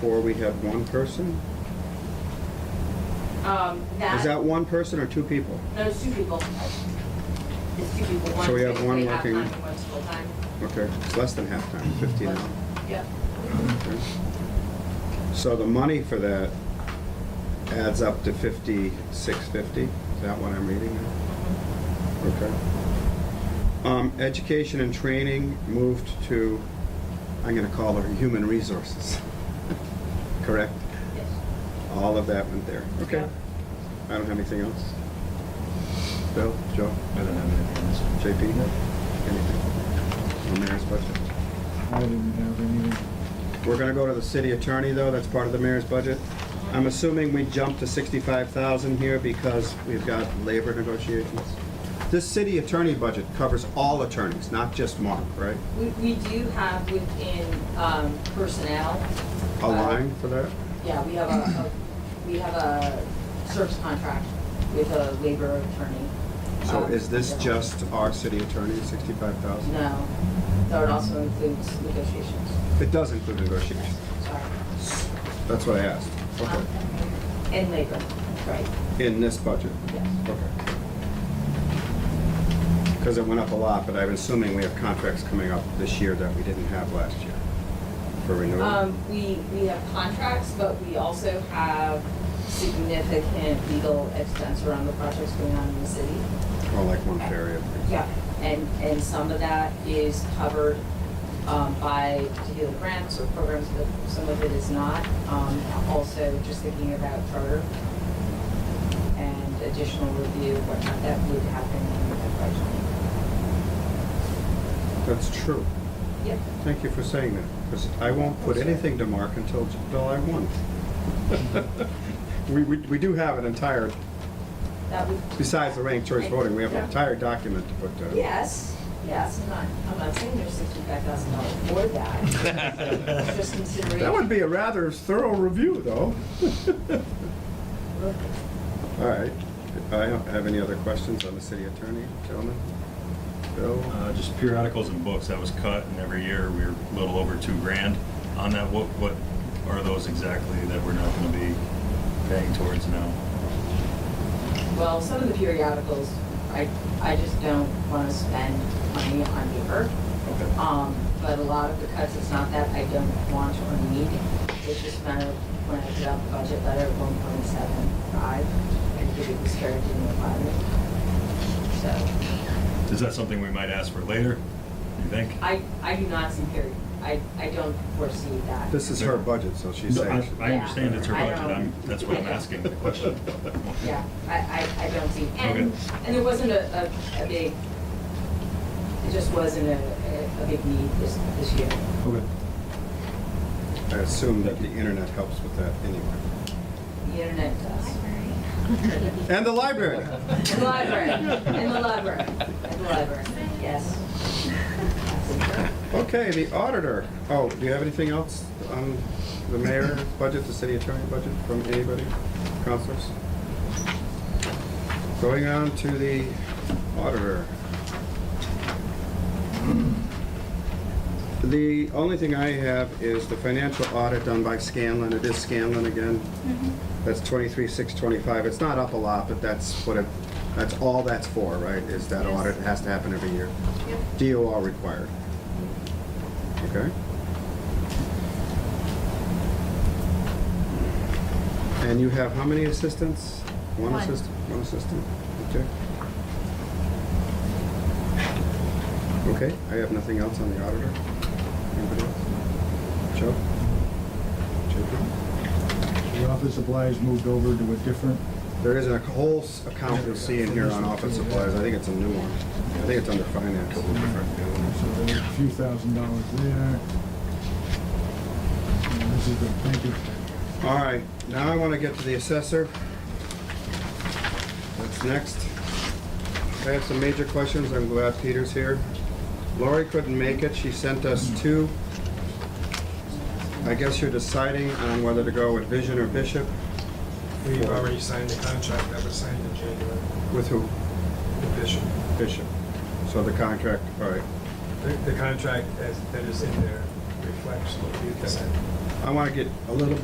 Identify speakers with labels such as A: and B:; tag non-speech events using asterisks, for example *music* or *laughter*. A: Or we have one person?
B: Um,
A: Is
B: that,
A: that one person or two people?
B: those two people. It's two people, one's
A: So we have one
B: basically half-time
A: working-
B: and one's full-time.
A: Okay, it's less than halftime, 15 hours.
B: Yep,
A: Okay. So the money for that adds up to 5650? Is that what I'm reading now? Okay. Um, Education and training moved to, I'm going to call her human resources. *laughs* Correct?
B: yes.
A: All of that went there. Okay.
B: Yeah.
A: I don't have anything else. Bill, Joe?
C: I don't have anything else.
A: JP, anything? No mayor's budget.
C: I didn't have any.
A: We're gonna go to the city attorney, though, that's part of the mayor's budget. I'm assuming we jumped to sixty-five thousand here because we've got labor negotiations. This city attorney budget covers all attorneys, not just Mark, right?
B: We, we do have within, um, personnel.
A: A
B: uh,
A: line for that?
B: Yeah, we have a, a- we have a service contract with a labor attorney.
A: So
B: Um,
A: is this
B: yeah.
A: just our city attorney, sixty-five thousand?
B: No, so it also includes negotiations,
A: It does include negotiations,
B: sorry.
A: that's what I asked.
B: Um, And labor, right,
A: In this budget?
B: yes.
A: Okay. Because it went up a lot, but I'm assuming we have contracts coming up this year that we didn't have last year for renewal.
B: Um, we, we have contracts, but we also have significant legal expense around the projects going on in the city.
A: Or like one ferry. I think.
B: Yeah. And, and some of that is covered, um, by particular grants or programs, but some of it is not. Um, also just thinking about charter and additional review, whatnot, that would happen in the
A: That's true.
B: budget. Yep.
A: Thank you for saying that, because I won't put anything to mark until July 1. *laughs* We, we we do have an entire,
B: That would,
A: besides the ranked choice voting, we have an entire document to put to.
B: Yes, yes, I'm not, I'm not saying there's sixty-five thousand dollars for that. It's *laughs* Just considering.
A: That would be a rather thorough review, though. *laughs* All right. I don't have any other questions on the city attorney, gentlemen? Bill?
D: Uh, Just periodicals and books, that was cut, and every year we were a little over two grand on that. What, what are those exactly that we're not gonna be paying towards now?
B: Well, some of the periodicals, I, I just don't wanna spend money on paper.
D: Okay.
B: Um, but a lot of the cuts, it's not that I don't want or need, it's just a matter of when I put out the budget letter of one point seven five, and give it was carried in the budget. So.
D: Is that something we might ask for later, you think?
B: I, I do not see period, I, I don't foresee that.
A: This is her budget, so she's
D: No, I
A: saying.
D: I understand it's her
B: Yeah, I
D: budget, I'm,
B: don't-
D: that's what I'm asking the question.
B: *laughs* Yeah, I, I, I don't see, and,
D: Okay.
B: and there wasn't a, a, a big, it just wasn't a, a, a big need this, this year.
D: Okay.
A: I assume that the internet helps with that anyway.
B: The internet does.
A: And the library.
B: And the library, and the library, and the library, yes.
A: Okay, the auditor. Oh, do you have anything else on the mayor budget, the city attorney budget from anybody, counselors? Going on to the auditor. The only thing I have is the financial audit done by Scanlon. It is Scanlon again.
E: Mm-hmm.
A: That's twenty-three, six, twenty-five. It's not up a lot, but that's what it, that's all that's for, right? Is that
E: Yes.
A: audit It has to happen every year.
E: Yep.
A: DOR required. Okay? And you have how many assistants? One
E: One.
A: assistant, one assistant, okay. Okay, I have nothing else on the auditor. Anybody else? Joe? JP?
C: The office supplies moved over to a different,
A: There is a whole s- account you'll see in here on office supplies, I think it's a new one. I think it's under finance.
C: so there were a few thousand dollars there. And this is the, thank you.
A: All right, now I want to get to the assessor. That's next. I have some major questions, I'm glad Peter's here. Lori couldn't make it, she sent us two. I guess you're deciding on whether to go with Vision or Bishop,
F: We've already signed the contract that was signed in January
A: with who?
F: with Bishop.
A: Bishop. So the contract, all right.
F: The, the contract as, that is in there reflects what we have signed.
A: I want to get a little bit